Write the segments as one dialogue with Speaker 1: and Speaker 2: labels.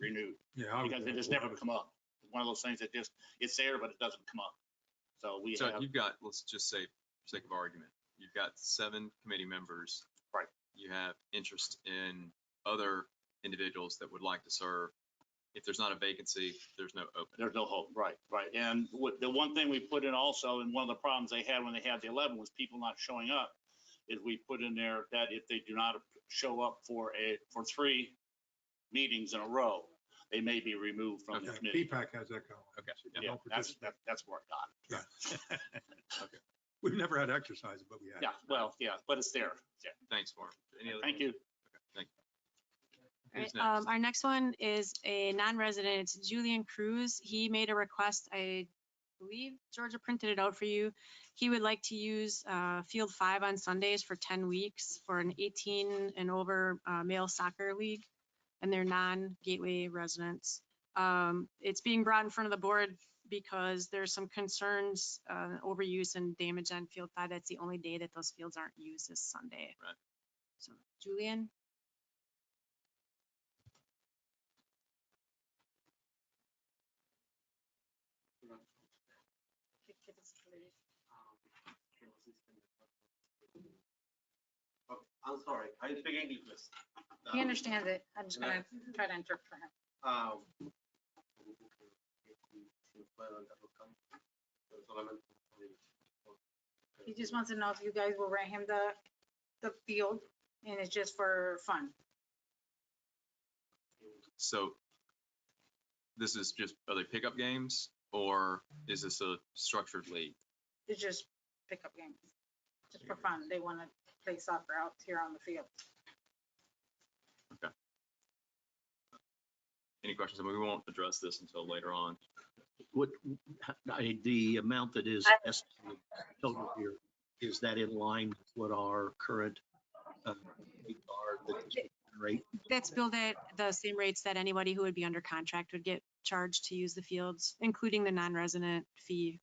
Speaker 1: renewed
Speaker 2: Yeah. I would
Speaker 1: because it
Speaker 2: go
Speaker 1: just
Speaker 2: for
Speaker 1: never come up. It's One of those things that just, it's there, but it doesn't come up. So we
Speaker 3: So
Speaker 1: have,
Speaker 3: you've got, let's just say, for sake of argument, you've got seven committee members.
Speaker 1: Right.
Speaker 3: You have interest in other individuals that would like to serve. If there's not a vacancy, there's no open.
Speaker 1: there's no hope, right, right. And what, the one thing we put in also, and one of the problems they had when they had the eleven was people not showing up, is we put in there that if they do not show up for a, for three meetings in a row, they may be removed from the
Speaker 2: Yeah,
Speaker 1: committee.
Speaker 2: P-PAC has that going.
Speaker 3: Okay.
Speaker 2: Yeah,
Speaker 1: Yeah,
Speaker 2: don't
Speaker 1: that's,
Speaker 2: participate.
Speaker 1: that- that's where it got.
Speaker 2: We've never had exercise, but we had.
Speaker 1: Yeah, well, yeah, but it's there. Yeah.
Speaker 3: Thanks, Mark. Any other-
Speaker 1: Thank you.
Speaker 3: Thank you.
Speaker 4: Alright,
Speaker 3: Who's
Speaker 4: Um,
Speaker 3: next?
Speaker 4: our next one is a non-resident, It's Julian Cruz. He made a request, I believe Georgia printed it out for you. He would like to use, uh, field five on Sundays for ten weeks for an eighteen and over, uh, male soccer league. And they're non-gateway residents. Um, it's being brought in front of the board because there's some concerns, uh, overuse and damage on field five. That's the only day that those fields aren't used is Sunday.
Speaker 3: Right.
Speaker 4: So Julian?
Speaker 5: Oh, I'm sorry, I speak English. please.
Speaker 6: He understands it. I'm just
Speaker 5: And I-
Speaker 6: gonna try to interpret for him.
Speaker 5: Um, si puedo andar buscando, pero solamente por-
Speaker 6: He just wants to know if you guys will rent him the, the field and it's just for fun.
Speaker 3: So this is just, are they pickup games or is this a structured league?
Speaker 6: It's just pickup games. Just for fun. They want to play soccer out here on the field.
Speaker 3: Any questions? I mean, we won't address this until later on.
Speaker 7: What, I, the amount that is
Speaker 6: I-
Speaker 7: estimated total here, is that in line with what our current uh, rate are, the rate?
Speaker 4: That's billed at the same rates that anybody who would be under contract would get charged to use the fields, including the non-resident fee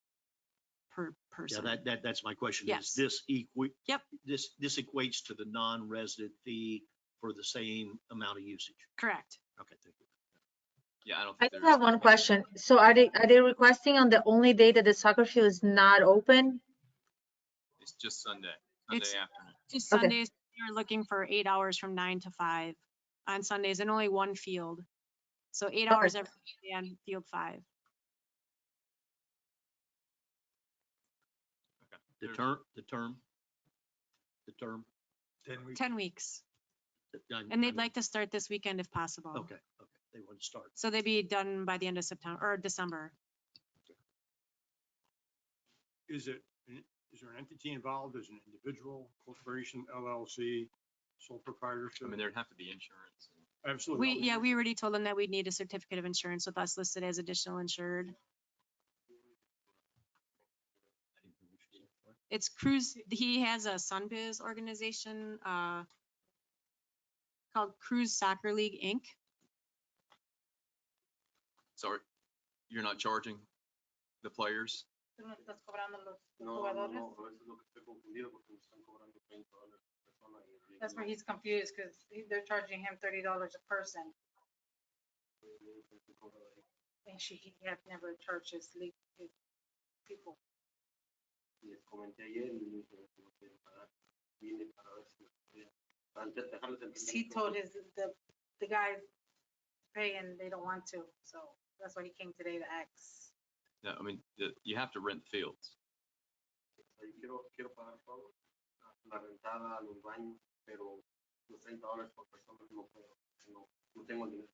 Speaker 4: per
Speaker 7: Yeah,
Speaker 4: person.
Speaker 7: that, that, that's my question.
Speaker 4: Yes.
Speaker 7: Is this equi?
Speaker 4: Yep.
Speaker 7: This, this equates to the non-resident fee for the same amount of usage.
Speaker 4: Correct.
Speaker 7: Okay, thank you.
Speaker 3: Yeah, I don't
Speaker 8: I
Speaker 3: think
Speaker 8: do
Speaker 3: there's.
Speaker 8: have one question. So are they, are they requesting on the only day that the soccer field is not open?
Speaker 3: It's just Sunday, Sunday
Speaker 4: It's-
Speaker 3: afternoon.
Speaker 4: Just
Speaker 8: Okay.
Speaker 4: Sundays, you're looking for eight hours from nine to five on Sundays and only one field. So eight
Speaker 8: Okay.
Speaker 4: hours every day on field five.
Speaker 7: The
Speaker 3: There's-
Speaker 7: term, the term, the term.
Speaker 2: Ten weeks.
Speaker 4: Ten weeks.
Speaker 7: that- I- I
Speaker 4: And
Speaker 7: mean,
Speaker 4: they'd like to start this weekend if possible.
Speaker 7: Okay, okay, they want to start.
Speaker 4: So they'd be done by the end of September or December.
Speaker 2: Is it, is there an entity involved? Is it an individual, corporation, LLC, sole proprietorship?
Speaker 3: I mean, there'd have to be insurance. and-
Speaker 7: Oh,
Speaker 2: Absolutely.
Speaker 4: We, yeah, we already told them that we'd need a certificate of insurance with us listed as additional insured. It's Cruz, he has a Sunbiz organization, uh, called Cruz Soccer League Inc.
Speaker 3: Sorry, you're not charging the players?
Speaker 6: Tú no estás cobrando los los
Speaker 5: No, no,
Speaker 6: jugadores.
Speaker 5: no, a veces lo que estoy confundido porque me están cobrando 30 dólares por persona y el
Speaker 6: That's where
Speaker 5: ritmo,
Speaker 6: he's confused because they're charging him thirty dollars a person
Speaker 5: el ritmo que se cobra ahí.
Speaker 6: and she, he had never charged his league, his people.
Speaker 5: Y les comenté ayer y me dijeron que no quieren pagar. Vine para ver si me podían- antes de dejarles el
Speaker 6: 'Cause He
Speaker 5: dinero,
Speaker 6: told his, the, the guys pay and they don't want to, so that's why he came today to ask.
Speaker 3: No, I mean, the- you have to rent the fields.
Speaker 5: Yo quiero, quiero pagar todo, la- la rentada, los baños, pero los 30 dólares por persona no puedo, no, no tengo el dinero.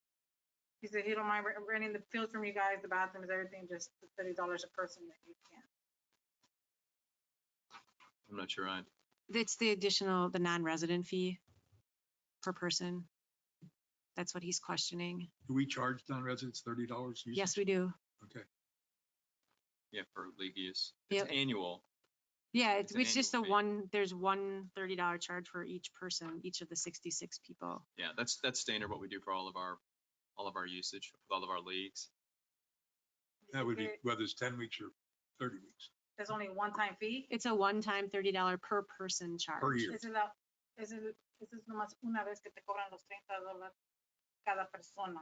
Speaker 6: He said he don't mind re- renting the field from you guys, the bathrooms, everything, just the thirty dollars a person that you can.
Speaker 3: I'm not sure I,
Speaker 4: That's the additional, the non-resident fee per person. That's what he's questioning.
Speaker 2: Do we charge non-residents thirty dollars?
Speaker 4: Yes, we do.
Speaker 2: Okay.
Speaker 3: yeah, for league use. It's
Speaker 4: Yep.
Speaker 3: annual.
Speaker 4: Yeah,
Speaker 3: It's
Speaker 4: it's,
Speaker 3: an
Speaker 4: it's just a
Speaker 3: annual fee.
Speaker 4: one, there's one thirty dollar charge for each person, each of the sixty-six people.
Speaker 3: Yeah, that's, that's standard what we do for all of our, all of our usage, with all of our leagues.
Speaker 2: That would be,
Speaker 6: There-
Speaker 2: whether it's ten weeks or thirty weeks.
Speaker 6: There's only one time fee.
Speaker 4: It's a one-time thirty dollar per person charge.
Speaker 2: year.
Speaker 6: Esa es la, esa es, esa es nomás una vez que te cobran los treinta dólares cada persona.